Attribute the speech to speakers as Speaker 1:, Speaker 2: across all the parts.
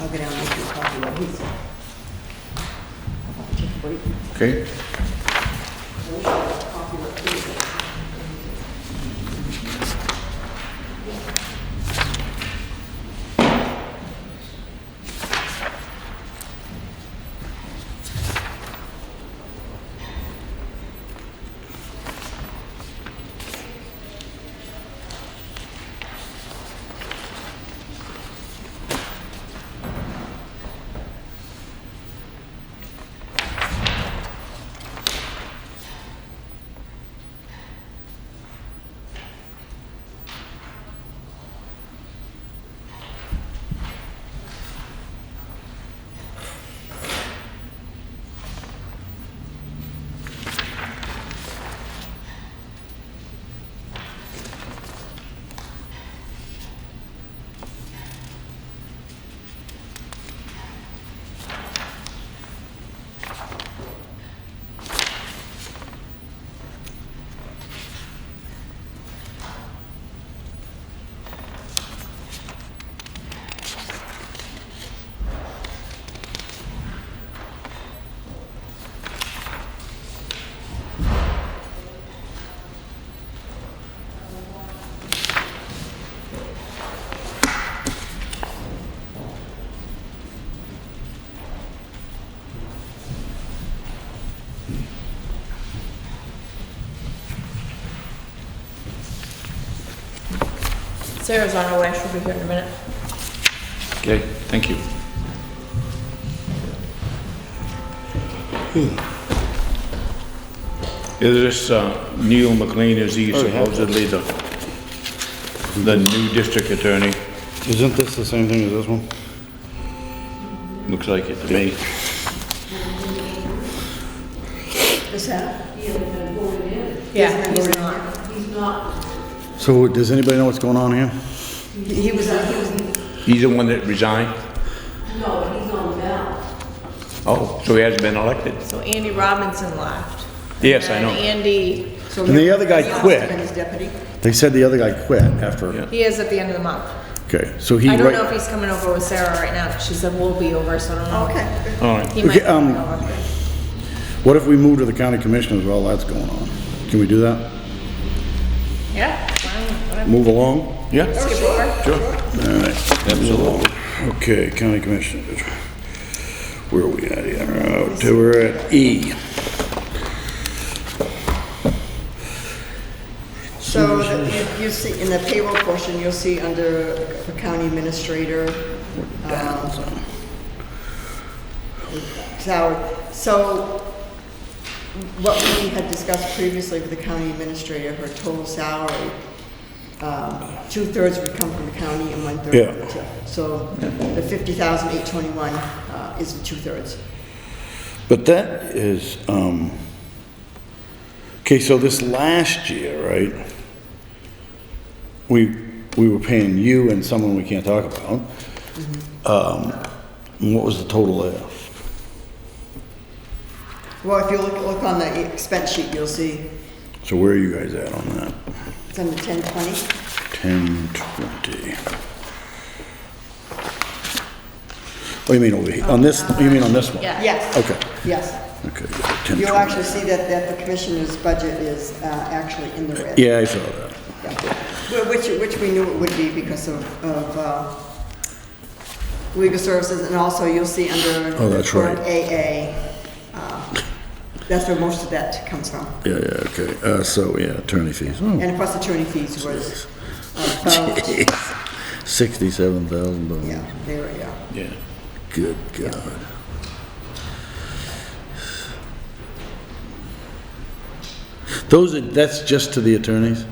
Speaker 1: I'll get out and make you a copy of what he said. I'll Just wait.
Speaker 2: Okay.
Speaker 1: I wish I had a copy of what he said.
Speaker 3: Sarah's on her way, she'll be here in a minute.
Speaker 2: Okay, thank you. Hmm. Is this uh, Neil McLean, is he supposedly the, the new district attorney?
Speaker 4: Isn't this the same thing as this one?
Speaker 2: Looks like it to me.
Speaker 1: Is that?
Speaker 3: Yeah, he's
Speaker 1: He's
Speaker 3: not.
Speaker 4: So does anybody know what's going on here?
Speaker 1: He was, he was,
Speaker 2: He's the one that resigned? No, he's on the ballot. Oh, so he hasn't been elected?
Speaker 3: So Andy Robinson left.
Speaker 2: Yes, I
Speaker 3: And
Speaker 2: know.
Speaker 3: Andy,
Speaker 1: so.
Speaker 4: And the other guy
Speaker 1: He must have
Speaker 4: quit.
Speaker 1: been his deputy.
Speaker 4: They said the other guy quit after.
Speaker 2: Yeah.
Speaker 3: he is at the end of the month.
Speaker 4: Okay, so he.
Speaker 3: I don't
Speaker 4: right-
Speaker 3: know if he's coming over with Sarah right now, 'cause she said we'll be over, so I don't know.
Speaker 1: Okay.
Speaker 2: All right.
Speaker 3: He might be
Speaker 4: Okay, um,
Speaker 3: coming over.
Speaker 4: What if we move to the county commissioners while that's going on? Can we do that?
Speaker 3: Yeah, fine, whatever.
Speaker 4: Move along?
Speaker 2: Yeah,
Speaker 3: Skip over.
Speaker 2: sure, absolutely.
Speaker 4: Okay, county commissioners. Where are we at here? Uh, We're at E.
Speaker 1: So the- you- you see, in the payroll portion, you'll see under the county administrator. um, Salary. So what we had discussed previously with the county administrator, her total salary, um, two-thirds would come from the county and one-third from the
Speaker 4: Yeah.
Speaker 1: TIF. So the 50,821 uh, is the two-thirds.
Speaker 4: But that is, um, okay, so this last year, right? We, we were paying you and someone we can't talk about. Um,
Speaker 1: Mm-hmm.
Speaker 4: and what was the total there?
Speaker 1: Well, if you look, look on the expense sheet, you'll see
Speaker 4: So where are you guys at on that?
Speaker 1: it's under 1020.
Speaker 4: Ten twenty. Oh, you mean over here, on this, you mean on this one?
Speaker 3: Yeah.
Speaker 1: Yes.
Speaker 4: Okay,
Speaker 1: Yes.
Speaker 4: okay, ten
Speaker 1: You'll
Speaker 4: twenty.
Speaker 1: actually see that, that the commissioner's budget is uh, actually in the red.
Speaker 4: Yeah, I saw that.
Speaker 1: Yeah. Wh- Which, which we knew it would be because of, of uh, legal services, and also you'll see under.
Speaker 4: Oh, that's right.
Speaker 1: current AA, uh, that's where most of that comes from.
Speaker 4: Yeah, yeah, okay, uh, so, yeah, attorney fees, oh,
Speaker 1: And of course, attorney fees was uh, about,
Speaker 4: sixty-seven thousand dollars.
Speaker 1: yeah, there we go.
Speaker 2: Yeah.
Speaker 4: Good God. Those are, that's just to the attorneys?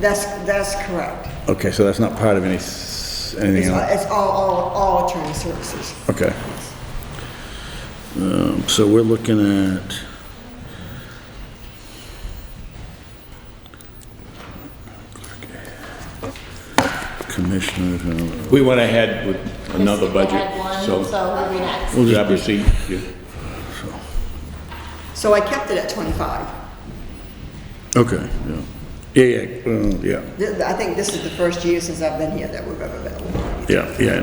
Speaker 1: That's, that's correct.
Speaker 4: Okay, so that's not part of any, s-
Speaker 1: It's
Speaker 4: anything
Speaker 1: all,
Speaker 4: else?
Speaker 1: it's all, all- all attorney services.
Speaker 4: Okay. Um, so we're looking at... Commissioners, uh,
Speaker 2: We went ahead with another
Speaker 3: Skip
Speaker 2: budget,
Speaker 3: ahead one,
Speaker 2: so.
Speaker 3: So who be next?
Speaker 4: We'll just
Speaker 2: Grab
Speaker 4: do-
Speaker 2: your seat. You-
Speaker 1: So I kept it at 25.
Speaker 4: okay, yeah. Yeah, yeah, uh, yeah,
Speaker 1: Th- I think this is the first year since I've been here that we've ever been awarded.
Speaker 4: yeah, yeah,